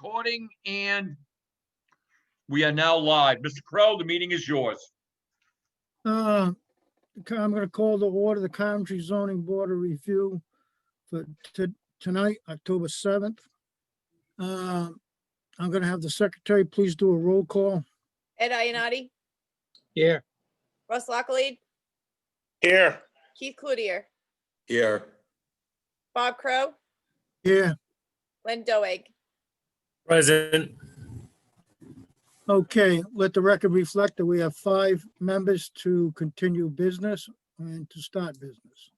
recording and we are now live. Mr. Crowe, the meeting is yours. Uh, c- I'm gonna call the order, the Coventry zoning board of review for to, tonight, October seventh. Um, I'm gonna have the secretary, please do a roll call. Ed Ionati, Yeah. Russ Locklead, Here. Keith Cloutier, Here. Bob Crow, Yeah, Len Doeg. Present. okay, let the record reflect that we have five members to continue business and to start business.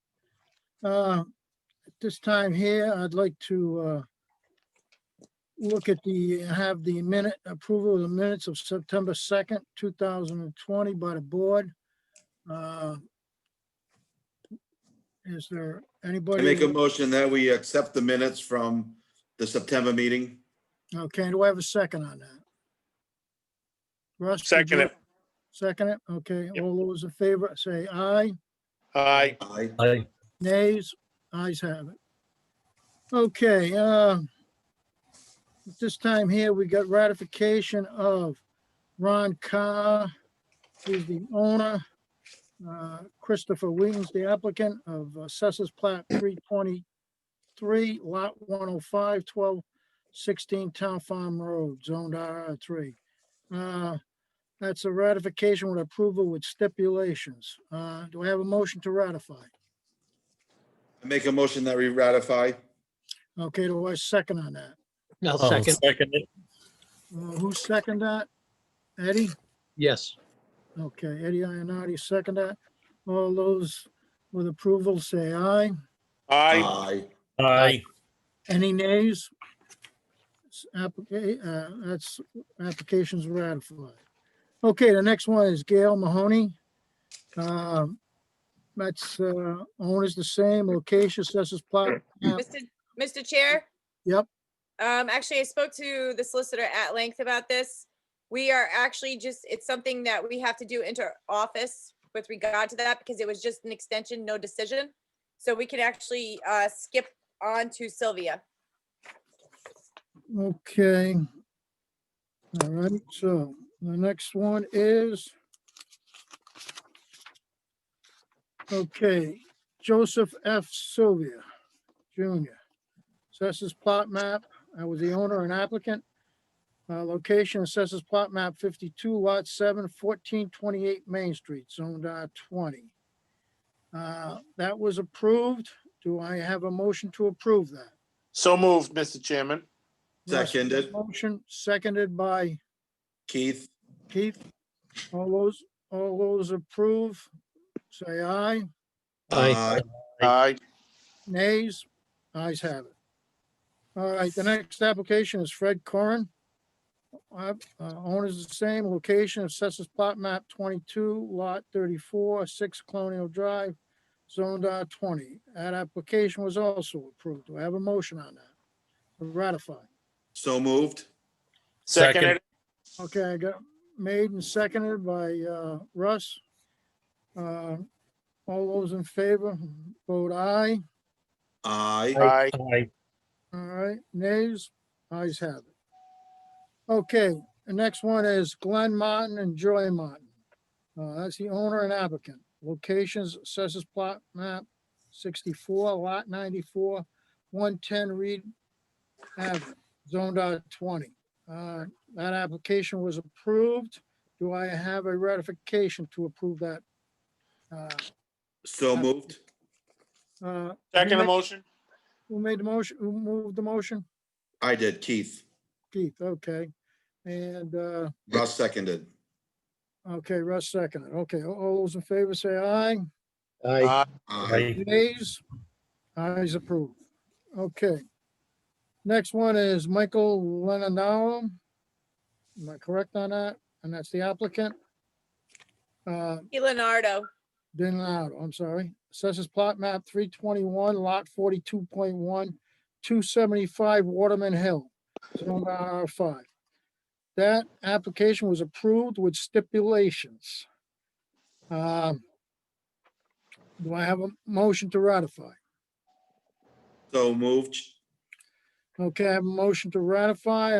Uh, at this time here, I'd like to, uh, look at the, have the minute, approval of the minutes of September 2nd, 2020 by the board. Uh, Is there I anybody? make a motion that we accept the minutes from the September meeting. Okay, do I have a second on that? Russ? did you- Second it. Second it, okay. All those in favor, say aye. Aye. Aye. Aye. Nays, ayes have it. Okay, uh, at this time here, we got ratification of Ron Carr, who's the owner, uh, Christopher Wheaton's the applicant of Assessors Plat 323, Lot 105, 12, 16 Town Farm Road, Zoned RR3. Uh, That's a ratification with approval with stipulations. Uh, Do I have a motion to ratify? I make a motion that we ratify. Okay, do I second on that? I'll second, Second. it. Uh, Who second that? Eddie? yes. Okay, Eddie Ionati second that. All those with approval say aye. Aye. Aye. Any nays? S- applica- uh, That's, applications ratified. Okay, the next one is Gail Mahoney. Um, That's, uh, owner's the same, location, assessors plot. map. Mr. Mr. Chair? Yep. Um, actually, I spoke to the solicitor at length about this. We are actually just, it's something that we have to do inter office with regard to that because it was just an extension, no decision. So we can actually, uh, skip on to Sylvia. Okay. All right, so the next one is. Okay, Joseph F. Sylvia Jr. Assessors plot map. I was the owner and applicant. Uh, location assessors plot map fifty-two lot 7, 1428 Main Street, zoned R twenty. Uh, that was approved. Do I have a motion to approve that? So moved, Mr. Chairman. Russ made the Seconded. Motion seconded by Keith? Keith. All those, all those approve, say aye. Aye. Aye. Nays, ayes have it. All right, the next application is Fred Corin. Uh, uh, Owner's the same, location assesses plot map 22, lot 34, 6 Colonial Drive, zoned R20. That application was also approved. Do I have a motion on that? Ratify. So moved. Second Second. it. Okay, I got made and seconded by uh, Russ. Uh, All those in favor, vote aye. Aye. Aye. Aye. All right, nays, ayes have it. Okay, the next one is Glenn Martin and Joy Martin. Uh, That's the owner and applicant. Locations, assessors plot map 64, lot 94, 110 Reed Avenue, zoned R20. Uh, That application was approved. Do I have a ratification to approve that? Uh, So moved. uh, Second motion. Who made the motion? Who moved the motion? I did, Keith. Keith, okay. And, uh, Russ seconded. okay, Russ seconded. Okay, all- all those in favor say aye. Aye, Aye. Aye. Aye. Nays? Ayes approved. Okay. Next one is Michael Lennon. Am I correct on that? And that's the applicant? Uh, Hey, Leonardo, Denado, I'm sorry. Assessors plot map three twenty-one, lot forty-two point one, two seventy-five Waterman Hill, zone R five. That application was approved with stipulations. Um, Do I have a motion to ratify? So moved. Okay, I have a motion to ratify.